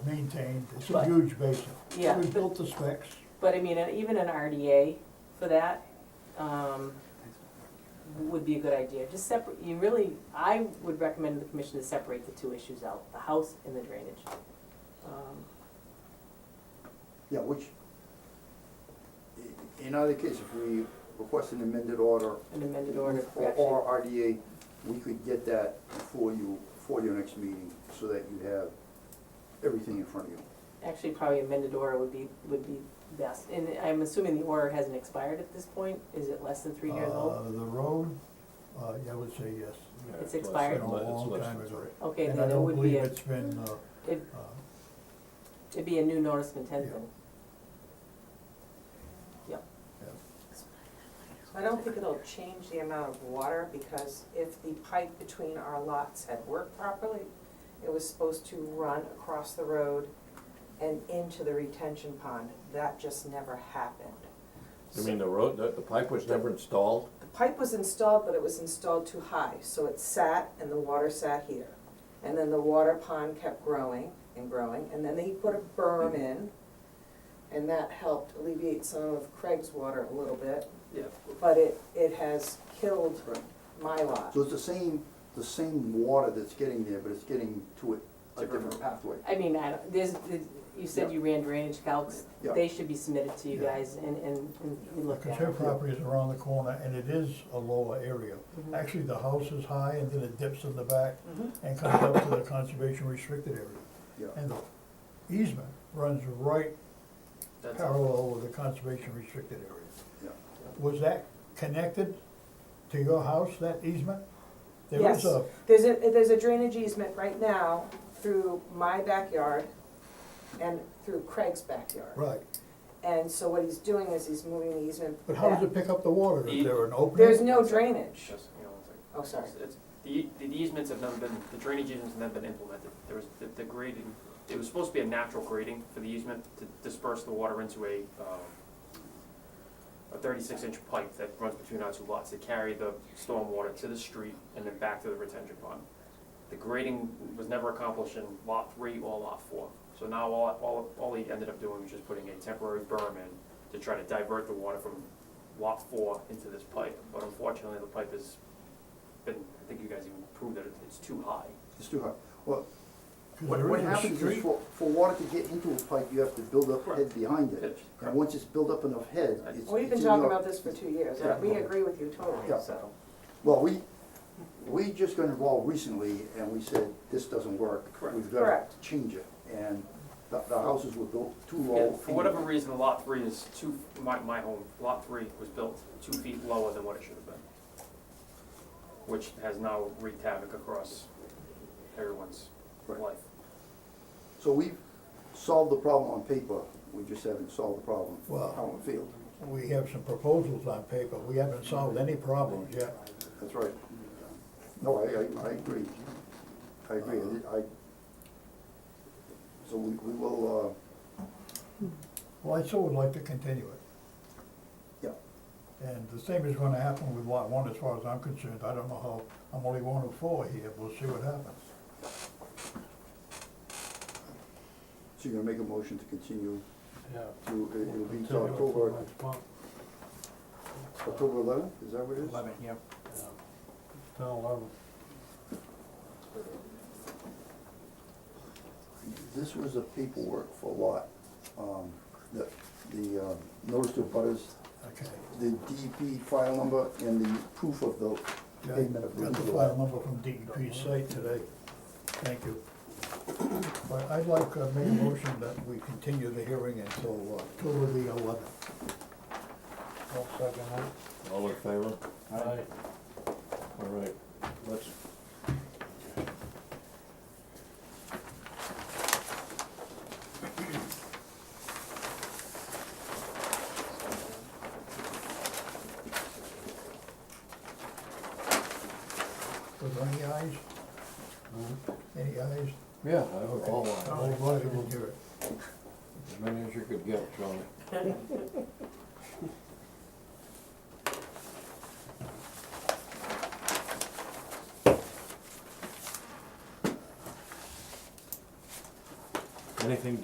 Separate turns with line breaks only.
maintained, it's a
Right.
huge basin.
Yeah,
We
but-
built the specs,
But I mean, uh, even an RDA for that um, would be a good idea. Just separate, you really, I would recommend the commission to separate the two issues out, the house and the drainage. Um,
Yeah, which, i- in either case, if we request an amended order.
An amended order of
or-
correction.
Or RDA, we could get that for you, for your next meeting, so that you have everything in front of you.
Actually, probably amended order would be, would be best. And I'm assuming the order hasn't expired at this point? Is it less than three years
uh,
old?
the road, uh, yeah, I would say yes. It's
It's expired.
been a long time ago.
Okay,
And I
then it
don't
would be,
believe
a
it's been, uh,
it-
uh,
it'd be a new notice of intent
Yeah.
then. Yep.
Yeah.
I don't think it'll change the amount of water, because if the pipe between our lots had worked properly, it was supposed to run across the road and into the retention pond. That just never happened.
You mean the road, the, the pipe was never installed?
The pipe was installed, but it was installed too high, so it sat and the water sat here. And then the water pond kept growing and growing, and then he put a berm
Mm-hmm.
in, and that helped alleviate some of Craig's water a little bit.
Yeah.
But it, it has killed my lot.
So it's the same, the same water that's getting there, but it's getting to it a different pathway.
I mean, I don't, there's, there's- you said
Yeah.
you ran drainage calcs,
Yeah.
they should be submitted to you
Yeah.
guys and, and, and be looked
because
at.
her property is around the corner and it is a lower area.
Mhm.
Actually, the house is high and then it dips in the back
Mhm.
Mm-hmm.
and comes up to the conservation restricted area.
Yeah.
And the easement runs right
That's-
parallel with the conservation restricted area.
Yeah.
Was that connected to your house, that easement? There
Yes,
was a,
There's a, there's a drainage easement right now through my backyard and through Craig's backyard.
right,
And so what he's doing is he's moving the easement
but how does
back.
it pick up the water? Is there an opening?
There's no drainage.
Just, you know, it's like-
Oh, sorry.
It's- it's- The, the easements have never been, the drainage easements have never been implemented. There was, the, the grading, it was supposed to be a natural grading for the easement to disperse the water into a, um, a thirty-six inch pipe that runs between our two lots to carry the stormwater to the street and then back to the retention pond. The grading was never accomplished in lot three or lot four. So now all, all, all he ended up doing was just putting a temporary berm in to try to divert the water from lot four into this pipe. But unfortunately, the pipe has been, I think you guys even proved that it's too high.
It's too high. Well,
Because
what,
there
what
is a
happens is
street.
for, for water to get into a pipe, you have to build up head
Correct.
behind it.
Pitch,
And
correct.
once it's built up enough head, it's.
We've
it's
been
in
talking
your-
about this for two years,
Yeah.
we agree with you totally,
Yeah.
so.
Well, we, we just got involved recently and we said, this doesn't work.
Correct.
We've got to
Correct.
change it. And the, the houses were built too
Yeah,
low.
For whatever reason, lot three is two, my, my home, lot three was built two feet lower than what it should have been. Which has now wreaked havoc across everyone's
Right.
life.
So we've solved the problem on paper, we just haven't solved the problem
Wow.
out in the field.
We have some proposals on paper, we haven't solved any problems yet.
That's right. No, I, I, I agree. I agree,
Uh-huh.
I, I- so we, we will, uh,
Well, I still would like to continue it,
uh, yeah,
and the same is gonna happen with lot one, as far as I'm concerned, I don't know how, I'm only one of four here, we'll see what happens.
so you're gonna make a motion to continue
Yeah.
to, it- it'll be to
Continue it till
October,
next month.
October eleventh, is that what it is?
Eleven, yep. Till eleven.
This was the paperwork for lot, um, the, the, um, notice to butters,
Okay.
the DEP file number and the proof of the
Yeah,
payment of.
Got the file number from DEP site today. Thank you. But I'd like to make a motion that we continue the hearing until uh, October the eleventh.
I'll second that.
All in favor?
Aye.
All right, let's,
Were there any ayes? Any ayes?
yeah, I would all
Oh,
want,
glad I didn't hear it.
as many as you could get, Charlie. anything